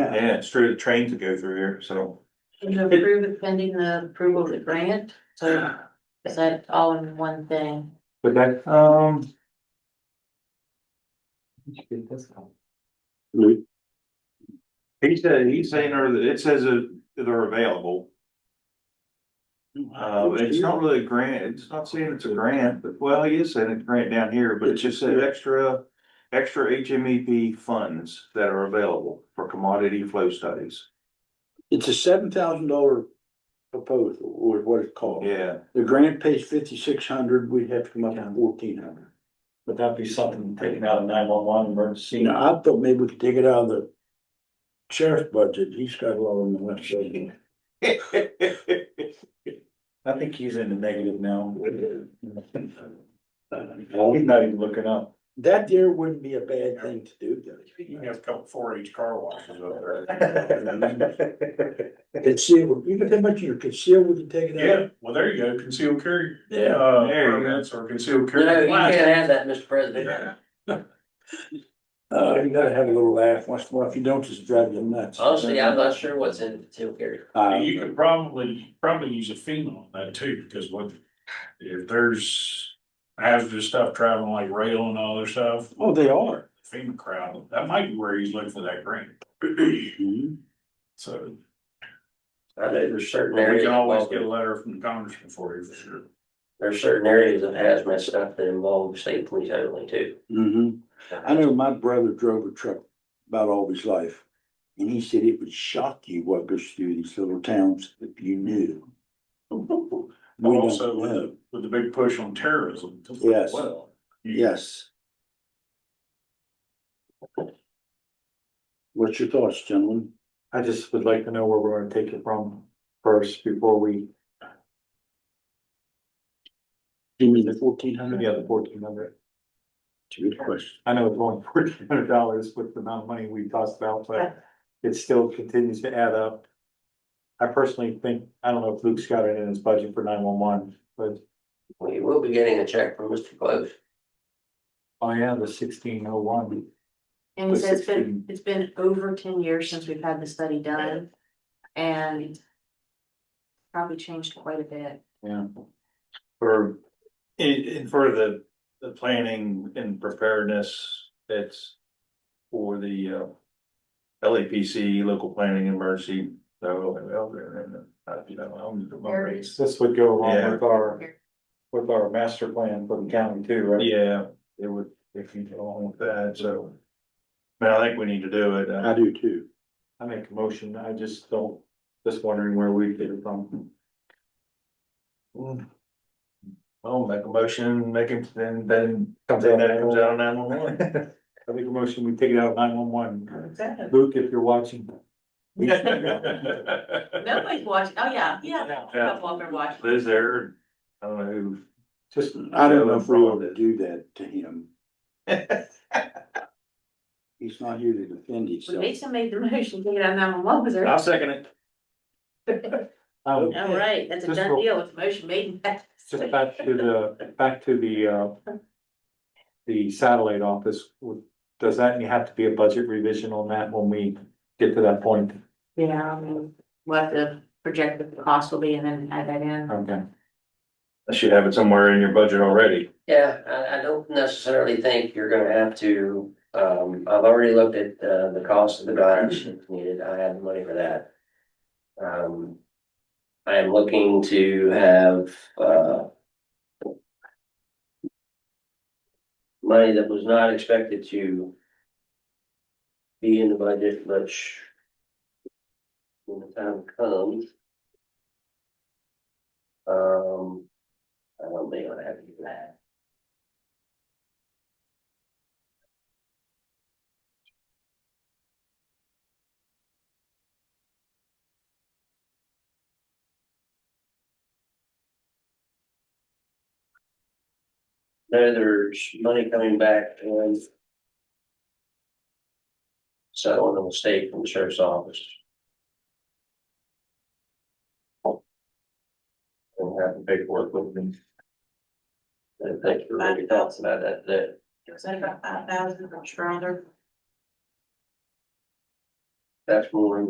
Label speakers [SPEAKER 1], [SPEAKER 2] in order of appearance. [SPEAKER 1] Yeah, it's true, the trains would go through here, so.
[SPEAKER 2] And to approve it pending the approval of the grant, so is that all in one thing?
[SPEAKER 1] But that, um.
[SPEAKER 3] Lou?
[SPEAKER 1] He said, he's saying, or it says that they're available. Uh, it's not really a grant, it's not saying it's a grant, but well, he is saying it's a grant down here, but it just said extra. Extra HMEP funds that are available for commodity flow studies.
[SPEAKER 3] It's a seven thousand dollar proposal, or what it's called.
[SPEAKER 1] Yeah,
[SPEAKER 3] The grant pays fifty-six hundred, we'd have to come up with fourteen hundred.
[SPEAKER 4] Would that be something taken out of nine one one emergency?
[SPEAKER 3] You know, I thought maybe we could take it out of the sheriff's budget, he's got a lot on the left side.
[SPEAKER 1] he's
[SPEAKER 4] I think he's in the negative now.
[SPEAKER 3] Well,
[SPEAKER 4] He's not even looking up.
[SPEAKER 3] That there wouldn't be a bad thing to do, though.
[SPEAKER 4] You have a couple four H car washes
[SPEAKER 1] up
[SPEAKER 4] there.
[SPEAKER 3] Conceal, you know how much you conceal, we can take it out.
[SPEAKER 5] Yeah, well, there you go, concealed carry.
[SPEAKER 3] Yeah,
[SPEAKER 5] Uh,
[SPEAKER 1] there you go.
[SPEAKER 5] permits or concealed
[SPEAKER 2] No,
[SPEAKER 5] carry.
[SPEAKER 2] you can't
[SPEAKER 5] flags.
[SPEAKER 2] have that, Mr. President.
[SPEAKER 3] Uh, you gotta have a little laugh once in a while, if you don't, just drive you nuts.
[SPEAKER 6] Honestly, I'm not sure what's in the two here.
[SPEAKER 3] Uh,
[SPEAKER 5] And You could probably, probably use a FEMA on that too, because what, if there's hazardous stuff traveling like rail and all this stuff,
[SPEAKER 3] Oh, they are.
[SPEAKER 5] FEMA crowd, that might be where he's looking for that grant. Mm-hmm. So,
[SPEAKER 6] I know there's
[SPEAKER 5] but
[SPEAKER 6] certain
[SPEAKER 5] we
[SPEAKER 6] areas,
[SPEAKER 5] can always
[SPEAKER 6] involved-
[SPEAKER 5] get a letter from the congressman for you for sure.
[SPEAKER 6] there's certain areas of hazmat stuff that involve state police only too.
[SPEAKER 3] hmm I know my brother drove a truck about all his life. And he said it would shock you what goes through these little towns if you knew.
[SPEAKER 5] But
[SPEAKER 3] We don't
[SPEAKER 5] also with
[SPEAKER 3] know.
[SPEAKER 5] the, with the big push on terrorism. as
[SPEAKER 3] Yes.
[SPEAKER 5] well.
[SPEAKER 3] Yes. What's your thoughts, gentlemen?
[SPEAKER 4] I just would like to know where we're gonna take it from first before we
[SPEAKER 3] You mean the fourteen hundred?
[SPEAKER 4] give the other fourteen hundred.
[SPEAKER 3] Good question.
[SPEAKER 4] I know it's only fourteen hundred dollars with the amount of money we tossed about, but it still continues to add up. I personally think, I don't know if Luke's got it in his budget for nine one one, but
[SPEAKER 6] We will be getting a check from Mr. Close.
[SPEAKER 4] I am the sixteen oh one.
[SPEAKER 2] And he says it's been, it's been over ten years since we've had the study done, and probably changed quite a bit.
[SPEAKER 4] Yeah.
[SPEAKER 1] for, in, in for the, the planning and preparedness, that's for the, uh, LAPC, local planning and emergency, so, well, there, and, uh, you know, I'm. I'm-
[SPEAKER 2] There it is.
[SPEAKER 4] This would go
[SPEAKER 1] Yeah.
[SPEAKER 4] along with our, with our master plan for the county too, right?
[SPEAKER 1] Yeah, it would, if you go along with that, so. Man, I think we need to do it.
[SPEAKER 3] I
[SPEAKER 1] Uh,
[SPEAKER 3] do too.
[SPEAKER 4] I make a motion, I just don't, just wondering where we get it from.
[SPEAKER 1] I'll make a motion, make it, then, then, then that comes out on nine one one.
[SPEAKER 4] I make a motion, we take it out of nine one one. Luke, if you're watching.
[SPEAKER 2] Nobody's watching, oh, yeah, yeah.
[SPEAKER 1] Yeah.
[SPEAKER 2] Walker watching.
[SPEAKER 1] Liz there, I don't know who.
[SPEAKER 4] Just,
[SPEAKER 3] I don't know if we ought to do that to him. He's not here to defend
[SPEAKER 2] But
[SPEAKER 3] himself.
[SPEAKER 2] Mason made the motion, take it out nine one one, was there?
[SPEAKER 1] I'll second it.
[SPEAKER 4] um,
[SPEAKER 2] All right, that's a
[SPEAKER 4] Just
[SPEAKER 2] done
[SPEAKER 4] roll.
[SPEAKER 2] deal, it's a motion made and passed.
[SPEAKER 4] just back to the, back to the, uh, the satellite office, does that have to be a budget revision on that when we get to that point?
[SPEAKER 2] Yeah, I mean, we'll have to project what the cost will be and then add that in.
[SPEAKER 4] Okay.
[SPEAKER 1] I should have it somewhere in your budget already.
[SPEAKER 6] Yeah, I, I don't necessarily think you're gonna have to, um, I've already looked at, uh, the cost of the garage that's needed. I have the money for that. Um, I am looking to have, uh, money that was not expected to be in the budget, which when the time comes. Um, I don't think I'll have to do that. No, there's money coming back and settling a mistake from the sheriff's office. And have the paperwork with me. And thank you for what you talked about that, that,
[SPEAKER 2] Was that about five thousand, I'm sure, other?
[SPEAKER 6] that's more